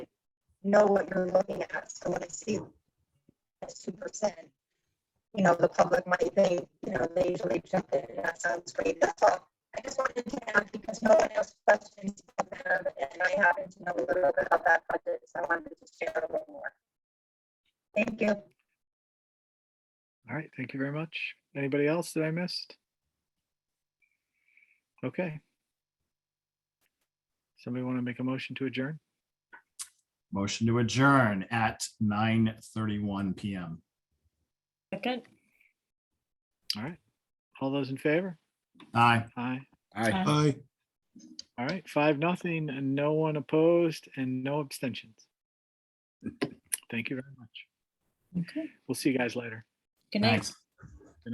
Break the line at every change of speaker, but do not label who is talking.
know what you're looking at, so when I see that's two percent, you know, the public might think, you know, they usually jump in, that sounds great, that's all. I just wanted to add because no one else questions about that, and I happen to know a little bit about that budget, so I wanted to share a little more. Thank you.
All right, thank you very much. Anybody else that I missed? Okay. Somebody want to make a motion to adjourn?
Motion to adjourn at nine thirty-one PM.
Second.
All right. All those in favor?
Aye.
Aye.
Aye.
Aye.
All right, five, nothing, and no one opposed and no abstentions. Thank you very much.
Okay.
We'll see you guys later.
Good night.
Thanks.